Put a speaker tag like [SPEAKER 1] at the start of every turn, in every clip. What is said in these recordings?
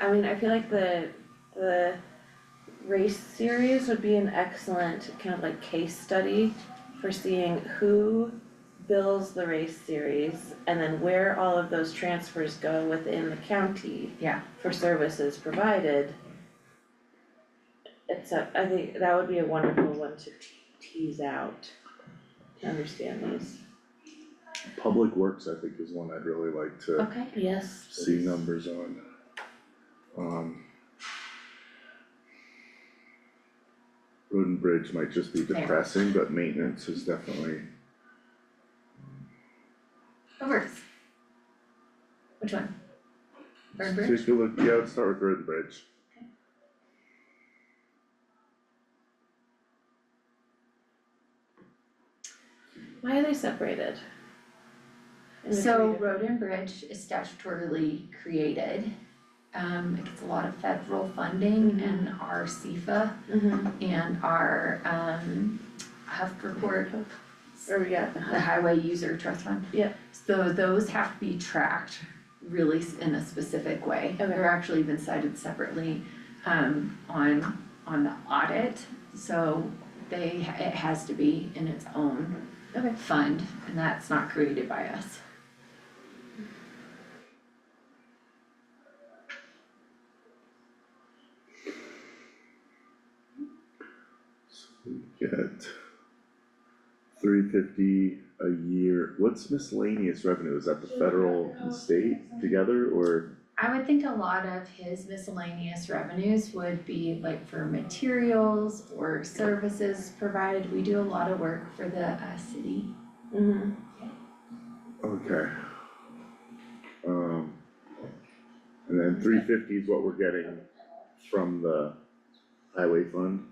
[SPEAKER 1] I mean, I feel like the, the race series would be an excellent kind of like case study for seeing who bills the race series and then where all of those transfers go within the county
[SPEAKER 2] Yeah.
[SPEAKER 1] for services provided. It's a, I think that would be a wonderful one to te- tease out, to understand these.
[SPEAKER 3] Public Works, I think, is one I'd really like to
[SPEAKER 2] Okay.
[SPEAKER 1] Yes.
[SPEAKER 3] see numbers on. Um. Road and Bridge might just be depressing, but maintenance is definitely,
[SPEAKER 2] Overs. Which one? Burn bridge?
[SPEAKER 3] take a look, yeah, let's start with Road and Bridge.
[SPEAKER 1] Why are they separated? In the
[SPEAKER 2] So
[SPEAKER 1] creative-
[SPEAKER 2] road and bridge is statutorily created. Um, it gets a lot of federal funding and our CFA
[SPEAKER 1] Mhm.
[SPEAKER 2] and our, um, Huff report,
[SPEAKER 1] Or, yeah,
[SPEAKER 2] the Highway User Trust Fund.
[SPEAKER 1] Yeah.
[SPEAKER 2] So those have to be tracked really s- in a specific way.
[SPEAKER 1] Okay.
[SPEAKER 2] They're actually been cited separately, um, on, on the audit. So they, it has to be in its own
[SPEAKER 1] Okay.
[SPEAKER 2] fund, and that's not created by us.
[SPEAKER 3] So we get three fifty a year, what's miscellaneous revenue, is that the federal and state together, or?
[SPEAKER 2] I would think a lot of his miscellaneous revenues would be like for materials or services provided. We do a lot of work for the uh city.
[SPEAKER 1] mhm.
[SPEAKER 3] Okay. Um. And then three fifty is what we're getting from the highway fund,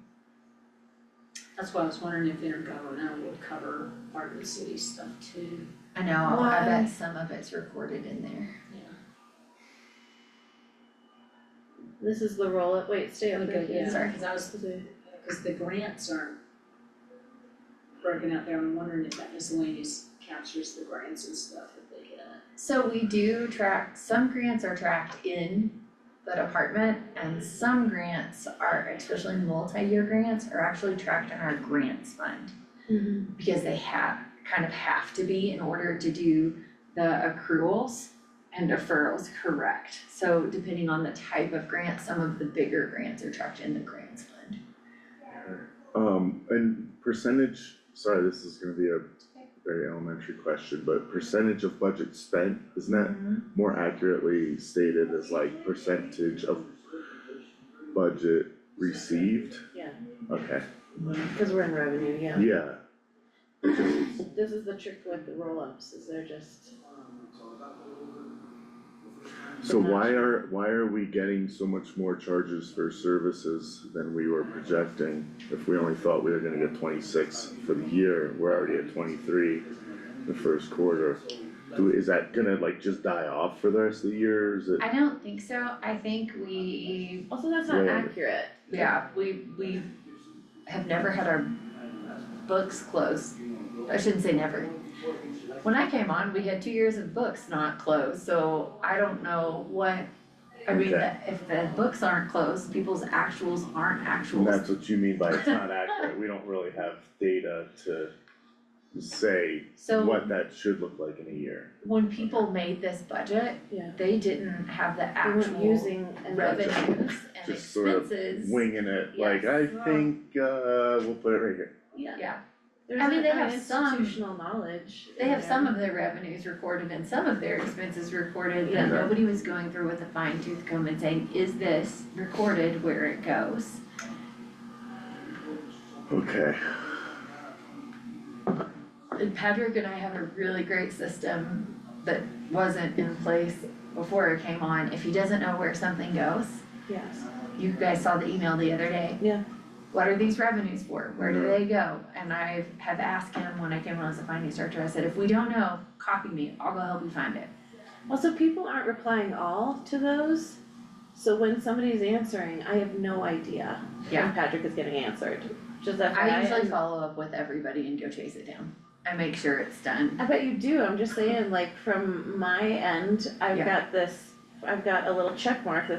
[SPEAKER 4] That's why I was wondering if intergovernmental would cover part of the city stuff too,
[SPEAKER 2] I know, I
[SPEAKER 1] Why?
[SPEAKER 2] bet some of it's recorded in there.
[SPEAKER 4] yeah.
[SPEAKER 1] This is the roll up, wait, stay up there,
[SPEAKER 4] Because,
[SPEAKER 1] yeah.
[SPEAKER 4] yeah, cause I was, cause the grants aren't broken out there, I'm wondering if that miscellaneous captures the grants and stuff that they get.
[SPEAKER 2] So we do track, some grants are tracked in the department and some grants are, especially multi-year grants, are actually tracked in our grants fund.
[SPEAKER 1] Mhm.
[SPEAKER 2] because they have, kind of have to be in order to do the accruals and deferrals correct. So depending on the type of grant, some of the bigger grants are tracked in the grants fund.
[SPEAKER 3] um, and percentage, sorry, this is gonna be a very elementary question, but percentage of budget spent, isn't that more accurately stated as like percentage of budget received?
[SPEAKER 1] Yeah.
[SPEAKER 3] Okay,
[SPEAKER 1] Cause we're in revenue, yeah.
[SPEAKER 3] yeah,
[SPEAKER 1] This is the trick with the roll ups, is they're just,
[SPEAKER 3] so
[SPEAKER 2] Mm-hmm.
[SPEAKER 3] why are, why are we getting so much more charges for services than we were projecting? If we only thought we were gonna get twenty-six for the year, we're already at twenty-three the first quarter. Do, is that gonna like just die off for the rest of the year, or is it,
[SPEAKER 2] I don't think so. I think we,
[SPEAKER 1] also that's not
[SPEAKER 3] Right.
[SPEAKER 1] accurate.
[SPEAKER 2] yeah, we, we have never had our books closed. I shouldn't say never. When I came on, we had two years of books not closed, so I don't know what, I mean,
[SPEAKER 3] Okay.
[SPEAKER 2] if the books aren't closed, people's actuals aren't
[SPEAKER 3] and
[SPEAKER 2] actuals.
[SPEAKER 3] that's what you mean by it's not accurate, we don't really have data to say
[SPEAKER 2] So
[SPEAKER 3] what that should look like in a year.
[SPEAKER 2] when people made this budget,
[SPEAKER 1] Yeah.
[SPEAKER 2] they didn't have the
[SPEAKER 1] They weren't
[SPEAKER 2] actual
[SPEAKER 1] using and
[SPEAKER 2] revenues
[SPEAKER 3] Gotcha.
[SPEAKER 2] and
[SPEAKER 3] Just sort of
[SPEAKER 2] expenses.
[SPEAKER 3] Winging it, like, I
[SPEAKER 2] Yes.
[SPEAKER 3] think, uh, we'll put it right here,
[SPEAKER 1] Yeah.
[SPEAKER 2] Yeah,
[SPEAKER 1] There's
[SPEAKER 2] I mean,
[SPEAKER 1] an-
[SPEAKER 2] they
[SPEAKER 1] an
[SPEAKER 2] have some-
[SPEAKER 1] institutional knowledge.
[SPEAKER 2] they have
[SPEAKER 1] in
[SPEAKER 2] some
[SPEAKER 1] there.
[SPEAKER 2] of their revenues recorded and some of their expenses recorded, but
[SPEAKER 3] Yeah.
[SPEAKER 2] nobody was going through with a fine tooth comb and saying, is this recorded where it goes?
[SPEAKER 3] okay.
[SPEAKER 2] And Patrick and I have a really great system that wasn't in place before it came on. If he doesn't know where something goes,
[SPEAKER 1] Yes,
[SPEAKER 2] you guys saw the email the other day.
[SPEAKER 1] Yeah.
[SPEAKER 2] What are these revenues for? Where do
[SPEAKER 3] Yeah.
[SPEAKER 2] they go? And I have asked him when I came on as a finance director, I said, if we don't know, copy me, I'll go help you find it.
[SPEAKER 1] also people aren't replying all to those, so when somebody's answering, I have no idea
[SPEAKER 2] Yeah.
[SPEAKER 1] when Patrick is getting answered, just FYI.
[SPEAKER 2] I usually
[SPEAKER 1] and-
[SPEAKER 2] follow up with everybody and go chase it down. I make sure it's done.
[SPEAKER 1] I bet you do, I'm just saying, like, from my end, I've
[SPEAKER 2] Yeah.
[SPEAKER 1] got this, I've got a little check mark that